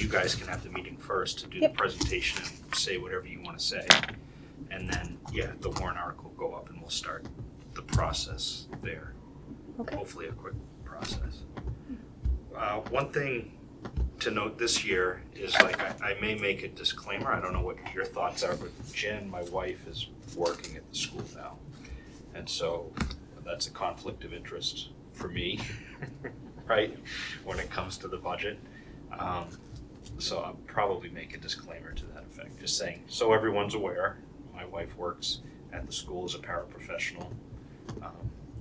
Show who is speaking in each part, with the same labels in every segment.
Speaker 1: you guys can have the meeting first to do the
Speaker 2: Yep.
Speaker 1: presentation and say whatever you want to say. And then, yeah, the warrant article will go up and we'll start the process there.
Speaker 2: Okay.
Speaker 1: Hopefully a quick process. Uh, one thing to note this year is like, I, I may make a disclaimer, I don't know what your thoughts are, but Jen, my wife, is working at the school now. And so that's a conflict of interest for me, right, when it comes to the budget. Um, so I'll probably make a disclaimer to that effect, just saying, so everyone's aware, my wife works at the school as a paraprofessional. Um,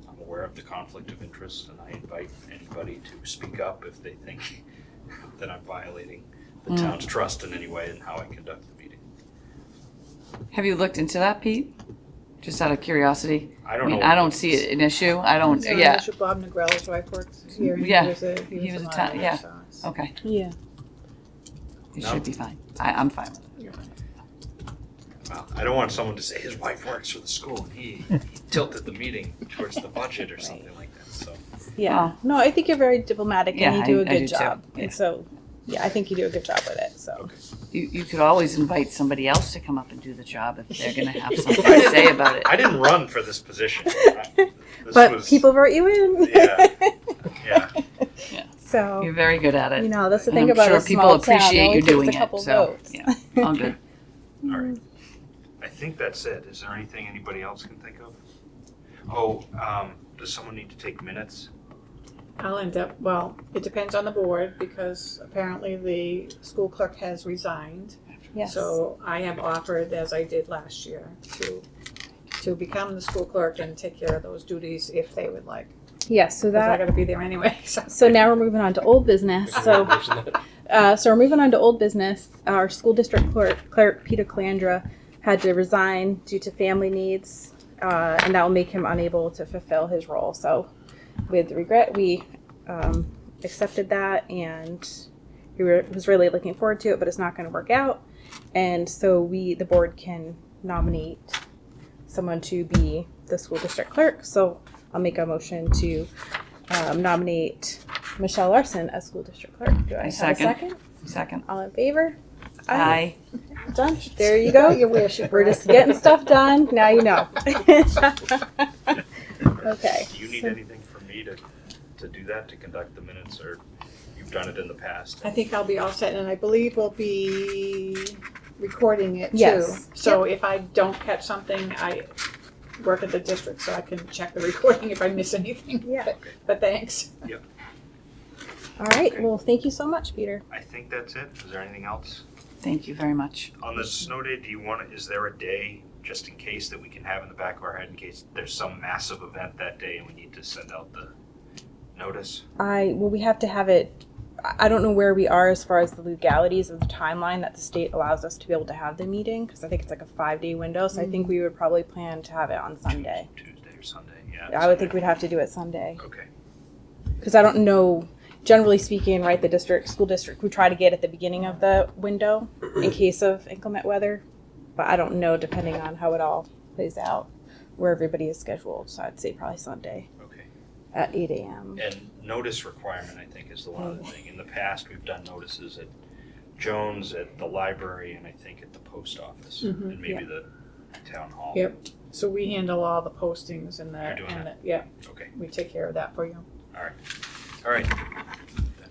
Speaker 1: I'm aware of the conflict of interest and I invite anybody to speak up if they think that I'm violating the
Speaker 3: Mm.
Speaker 1: town's trust in any way in how I conduct the meeting.
Speaker 3: Have you looked into that, Pete? Just out of curiosity.
Speaker 1: I
Speaker 3: I
Speaker 1: don't know.
Speaker 3: mean, I don't see it an issue. I don't,
Speaker 4: So,
Speaker 3: yeah,
Speaker 4: Bishop Bob Negrelli's wife works here. He
Speaker 3: Yeah,
Speaker 4: was a,
Speaker 3: he
Speaker 4: he was
Speaker 3: was
Speaker 4: a
Speaker 3: a ta-
Speaker 4: monitor,
Speaker 3: yeah.
Speaker 4: so it's-
Speaker 3: okay.
Speaker 2: Yeah.
Speaker 3: It
Speaker 1: No.
Speaker 3: should be fine. I, I'm fine with it.
Speaker 1: Well, I don't want someone to say his wife works for the school and he he tilted the meeting towards the budget or something like that, so.
Speaker 3: Yeah.
Speaker 2: Yeah. No, I think you're very diplomatic and
Speaker 3: Yeah,
Speaker 2: you do
Speaker 3: I-
Speaker 2: a
Speaker 3: I do
Speaker 2: good
Speaker 3: too.
Speaker 2: job.
Speaker 3: Yeah.
Speaker 2: And so, yeah, I think you do a good job with it. So,
Speaker 3: You, you could always invite somebody else to come up and do the job if they're gonna have something to say about it.
Speaker 1: I didn't run for this position. I- This
Speaker 2: but
Speaker 1: was,
Speaker 2: people vote you in.
Speaker 1: Yeah. Yeah,
Speaker 3: You're
Speaker 2: so,
Speaker 3: very good at
Speaker 2: you
Speaker 3: it.
Speaker 2: know, that's the
Speaker 3: And
Speaker 2: thing
Speaker 3: I'm
Speaker 2: about
Speaker 3: sure
Speaker 2: a
Speaker 3: people
Speaker 2: small town. It
Speaker 3: appreciate
Speaker 2: only
Speaker 3: you
Speaker 2: takes a
Speaker 3: doing it,
Speaker 2: couple
Speaker 3: so,
Speaker 2: votes.
Speaker 3: yeah, all good.
Speaker 1: all right. I think that's it. Is there anything anybody else can think of? Oh, um, does someone need to take minutes?
Speaker 4: I'll end up, well, it depends on the board because apparently the school clerk has resigned.
Speaker 2: Yes.
Speaker 4: So I have offered, as I did last year, to, to become the school clerk and take care of those duties if they would like.
Speaker 2: yes. So
Speaker 4: Cause I
Speaker 2: that.
Speaker 4: gotta be there anyway, so.
Speaker 2: So now we're moving on to old business. So, uh, so we're moving on to old business. Our school district clerk, clerk Peter Calandra, had to resign due to family needs, uh, and that will make him unable to fulfill his role. So, with regret, we um, accepted that, and he were, was really looking forward to it, but it's not going to work out. And so, we, the board, can nominate someone to be the school district clerk. So, I'll make a motion to um, nominate Michelle Larson as school district clerk. Do I have
Speaker 3: Second.
Speaker 2: a second?
Speaker 3: Second.
Speaker 2: All in favor?
Speaker 3: Aye.
Speaker 2: Done. There you go. You wish. We're just getting stuff done. Now you know. okay.
Speaker 1: Do you need anything from me to, to do that, to conduct the minutes, or you've done it in the past?
Speaker 4: I think I'll be all set, and I believe we'll be recording it too.
Speaker 2: Yes.
Speaker 4: So if I don't catch something, I work at the district, so I can check the recording if I miss anything.
Speaker 2: Yeah.
Speaker 4: But- But thanks.
Speaker 2: All right. Well, thank you so much, Peter.
Speaker 1: I think that's it. Is there anything else?
Speaker 3: Thank you very much.
Speaker 1: On the snow day, do you want, is there a day just in case that we can have in the back of our head in case there's some massive event that day and we need to send out the notice?
Speaker 2: I well, we have to have it. I I don't know where we are as far as the legalities of the timeline that the state allows us to be able to have the meeting because I think it's like a five day window. So I think we would probably plan to have it on Sunday.
Speaker 1: Tuesday or Sunday, yeah.
Speaker 2: I would think we'd have to do it Sunday.
Speaker 1: Okay,
Speaker 2: because I don't know. Generally speaking, right, the district, school district, we try to get at the beginning of the window in case of inclement weather, but I don't know depending on how it all plays out where everybody is scheduled. So I'd say probably Sunday
Speaker 1: okay.
Speaker 2: at eight a.m.
Speaker 1: And notice requirement, I think, is the one
Speaker 2: Mm-hmm.
Speaker 1: other thing. In the past, we've done notices at Jones, at the library, and I think at the post office,
Speaker 2: Mm-hmm,
Speaker 4: Mhm,
Speaker 1: and maybe the town hall.
Speaker 4: Yep. So we handle all the postings and the,
Speaker 1: You're doing
Speaker 4: and the, yeah,
Speaker 1: Okay,
Speaker 4: we take care of that for you.
Speaker 1: all right. Then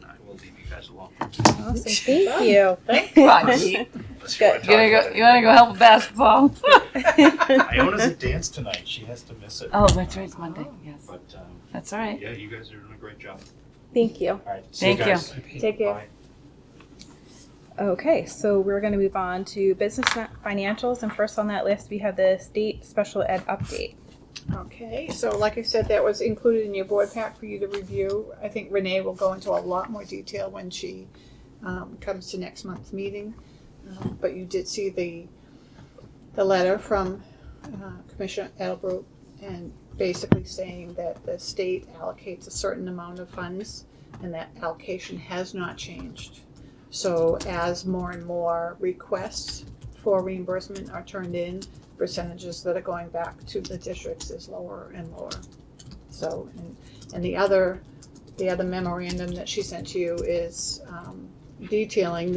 Speaker 1: I will leave you guys alone.
Speaker 2: Awesome, thank you.
Speaker 3: Come on, Pete.
Speaker 1: Unless
Speaker 2: Good.
Speaker 1: you want to
Speaker 3: You
Speaker 1: talk
Speaker 3: wanna go,
Speaker 1: about
Speaker 3: you wanna go help with basketball?
Speaker 1: it. Iona's at dance tonight. She has to miss it.
Speaker 3: Oh, that's right, it's Monday, yes.
Speaker 1: But, um,
Speaker 3: That's all right.
Speaker 1: yeah, you guys are doing a great job.
Speaker 2: Thank you.
Speaker 1: All right. see
Speaker 3: Thank you.
Speaker 1: guys.
Speaker 2: Take care.
Speaker 1: Bye.
Speaker 2: Okay, so we're going to move on to business and financials, and first on that list we have the state special ed update.
Speaker 4: Okay, so like I said, that was included in your board pack for you to review. I think Renee will go into a lot more detail when she um, comes to next month's meeting. Um, But you did see the, the letter from uh, Commissioner Edelbrook and basically saying that the state allocates a certain amount of funds and that allocation has not changed. So as more and more requests for reimbursement are turned in, percentages that are going back to the districts is lower and lower. So, and, and the other, the other memorandum that she sent you is, um, detailing the